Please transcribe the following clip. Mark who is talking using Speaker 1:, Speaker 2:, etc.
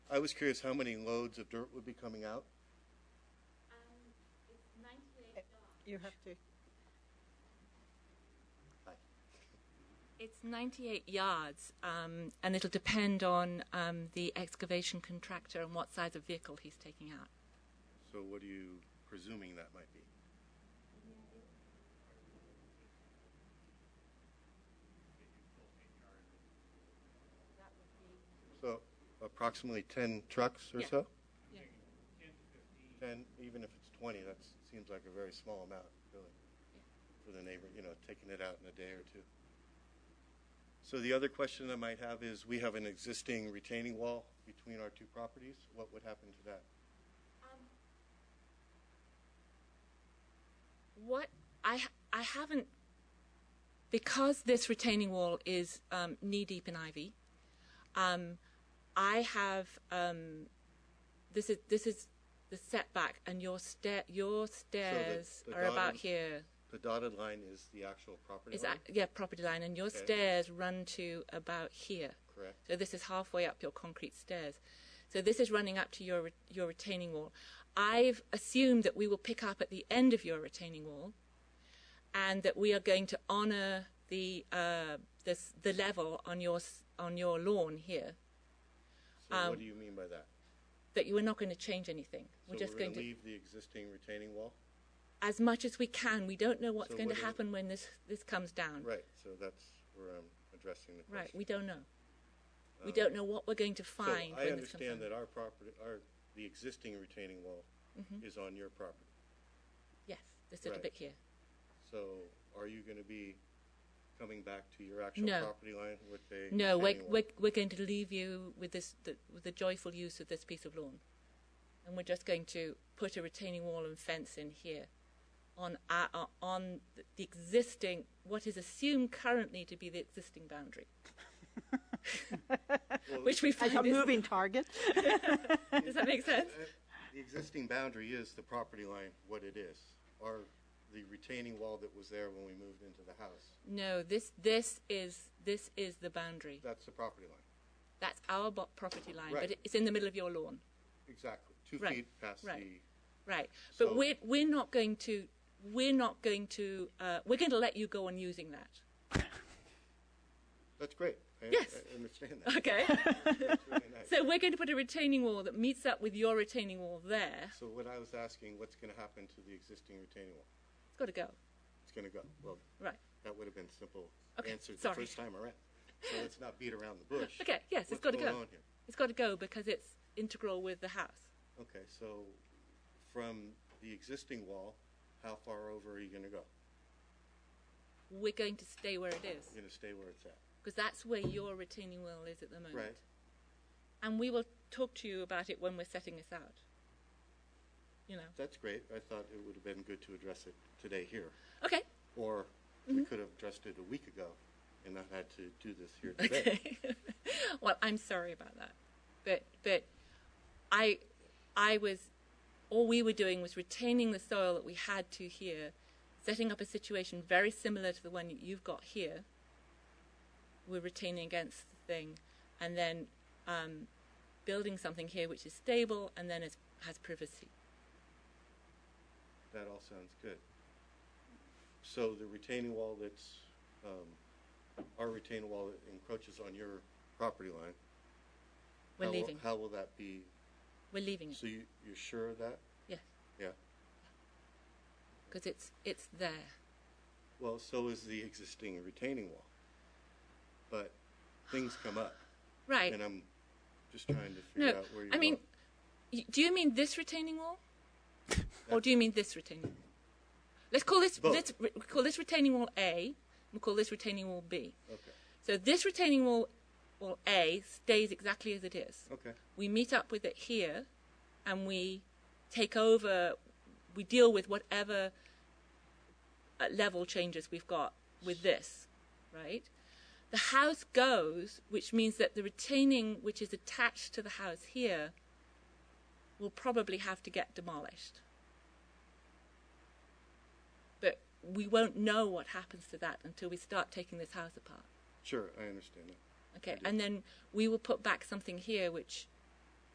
Speaker 1: I was curious how many loads of dirt would be coming out?
Speaker 2: Um, it's ninety-eight dogs.
Speaker 3: You have to,
Speaker 2: It's ninety-eight yards, um, and it'll depend on, um, the excavation contractor and what size of vehicle he's taking out.
Speaker 1: So what are you presuming that might be? So approximately 10 trucks or
Speaker 2: Yeah.
Speaker 1: so?
Speaker 2: Yeah.
Speaker 1: 10, even if it's 20, that seems like a very small amount, really, for the neighbor, you know, taking it out in a day or two. So the other question I might have is, we have an existing retaining wall between our two properties. What would happen to that?
Speaker 2: What I ha- I haven't because this retaining wall is um, knee deep in ivy. Um, I have um, this is this is the setback, and your stair your stairs
Speaker 1: the
Speaker 2: are about
Speaker 1: garden-
Speaker 2: here.
Speaker 1: The dotted line is the actual property
Speaker 2: Is
Speaker 1: line,
Speaker 2: that yeah property line, and your
Speaker 1: Okay.
Speaker 2: stairs run to about here.
Speaker 1: correct?
Speaker 2: So this is halfway up your concrete stairs. So this is running up to your re- your retaining wall. I've assumed that we will pick up at the end of your retaining wall, and that we are going to honour the uh, this the level on your s- on your lawn here.
Speaker 1: So what do you mean by that?
Speaker 2: That you are not going to change anything. um, We're
Speaker 1: So
Speaker 2: just
Speaker 1: we're
Speaker 2: going
Speaker 1: gonna leave the existing retaining wall?
Speaker 2: to as much as we can. We don't know what's
Speaker 1: So
Speaker 2: going
Speaker 1: what
Speaker 2: to
Speaker 1: is-
Speaker 2: happen when this this comes down.
Speaker 1: Right, so that's where I'm addressing the
Speaker 2: Right,
Speaker 1: question.
Speaker 2: We don't know. we don't know what we're going to
Speaker 1: Um, So
Speaker 2: find.
Speaker 1: I
Speaker 2: when this comes down.
Speaker 1: understand that our property, our, the existing retaining wall
Speaker 2: Mm-hmm.
Speaker 1: is on your property.
Speaker 2: Yes, this little
Speaker 1: Right.
Speaker 2: bit here.
Speaker 1: So are you going to be coming back to your actual
Speaker 2: No.
Speaker 1: property line with a?
Speaker 2: No, we're,
Speaker 1: retaining wall?
Speaker 2: we're, we're going to leave you with this the, with the joyful use of this piece of lawn, and we're just going to put a retaining wall and fence in here, on our, uh, on the existing what is assumed currently to be the existing boundary,
Speaker 1: uh,
Speaker 2: which we
Speaker 3: as a
Speaker 2: find is,
Speaker 3: moving target.
Speaker 2: does that make sense?
Speaker 1: Uh, The existing boundary is the property line, what it is, or the retaining wall that was there when we moved into the house.
Speaker 2: No, this this is this is the boundary.
Speaker 1: That's the property line.
Speaker 2: That's our bo- property line,
Speaker 1: Right.
Speaker 2: but it's in the middle of your lawn.
Speaker 1: Exactly. Two
Speaker 2: Right,
Speaker 1: feet past
Speaker 2: right.
Speaker 1: the
Speaker 2: Right. But
Speaker 1: So-
Speaker 2: we're we're not going to we're not going to uh, we're going to let you go on using that.
Speaker 1: That's great. I,
Speaker 2: Yes.
Speaker 1: I understand that.
Speaker 2: Okay.
Speaker 1: That's really nice.
Speaker 2: so we're going to put a retaining wall that meets up with your retaining wall there.
Speaker 1: So what I was asking, what's going to happen to the existing retaining wall?
Speaker 2: It's got to go.
Speaker 1: It's going to go. Well,
Speaker 2: Right.
Speaker 1: that would have been simple
Speaker 2: Okay,
Speaker 1: answer the
Speaker 2: sorry.
Speaker 1: first time around. So let's not beat around the bush.
Speaker 2: Okay. Yes, it's
Speaker 1: What's
Speaker 2: got to
Speaker 1: going
Speaker 2: go.
Speaker 1: on here?
Speaker 2: It's got to go because it's integral with the house.
Speaker 1: Okay, so from the existing wall, how far over are you going to go?
Speaker 2: We're going to stay where it is
Speaker 1: You're going to stay where it's at,
Speaker 2: because that's where your retaining wall is at the moment.
Speaker 1: right?
Speaker 2: And we will talk to you about it when we're setting this out. You know.
Speaker 1: That's great. I thought it would have been good to address it today here.
Speaker 2: Okay.
Speaker 1: Or
Speaker 2: Mm-hmm.
Speaker 1: we could have addressed it a week ago and not had to do this here today.
Speaker 2: well, I'm sorry about that, but but I I was all we were doing was retaining the soil that we had to here, setting up a situation very similar to the one you've got here. We're retaining against the thing, and then um, building something here which is stable and then is, has privacy.
Speaker 1: That all sounds good. So the retaining wall that's, um, our retaining wall that encroaches on your property line.
Speaker 2: We're
Speaker 1: how will-
Speaker 2: leaving. Mm.
Speaker 1: How will that be,
Speaker 2: We're leaving it.
Speaker 1: so you, you're sure of that?
Speaker 2: Yes,
Speaker 1: Yeah.
Speaker 2: because it's it's there.
Speaker 1: Well, so is the existing retaining wall. But things come up
Speaker 2: Right.
Speaker 1: and I'm just trying to figure
Speaker 2: No,
Speaker 1: out where you're
Speaker 2: I mean,
Speaker 1: going.
Speaker 2: y- do you mean this retaining wall, or do you mean this retaining? wall? Let's call this
Speaker 1: Both.
Speaker 2: let's re- call this retaining wall A. We'll call this retaining wall B.
Speaker 1: Okay,
Speaker 2: So this retaining wall, wall A, stays exactly as it is.
Speaker 1: okay,
Speaker 2: We meet up with it here, and we take over. We deal with whatever uh, level changes we've got with this, right? The house goes, which means that the retaining which is attached to the house here will probably have to get demolished. But we won't know what happens to that until we start taking this house apart.
Speaker 1: sure, I understand that.
Speaker 2: Okay, and then we will put back something here which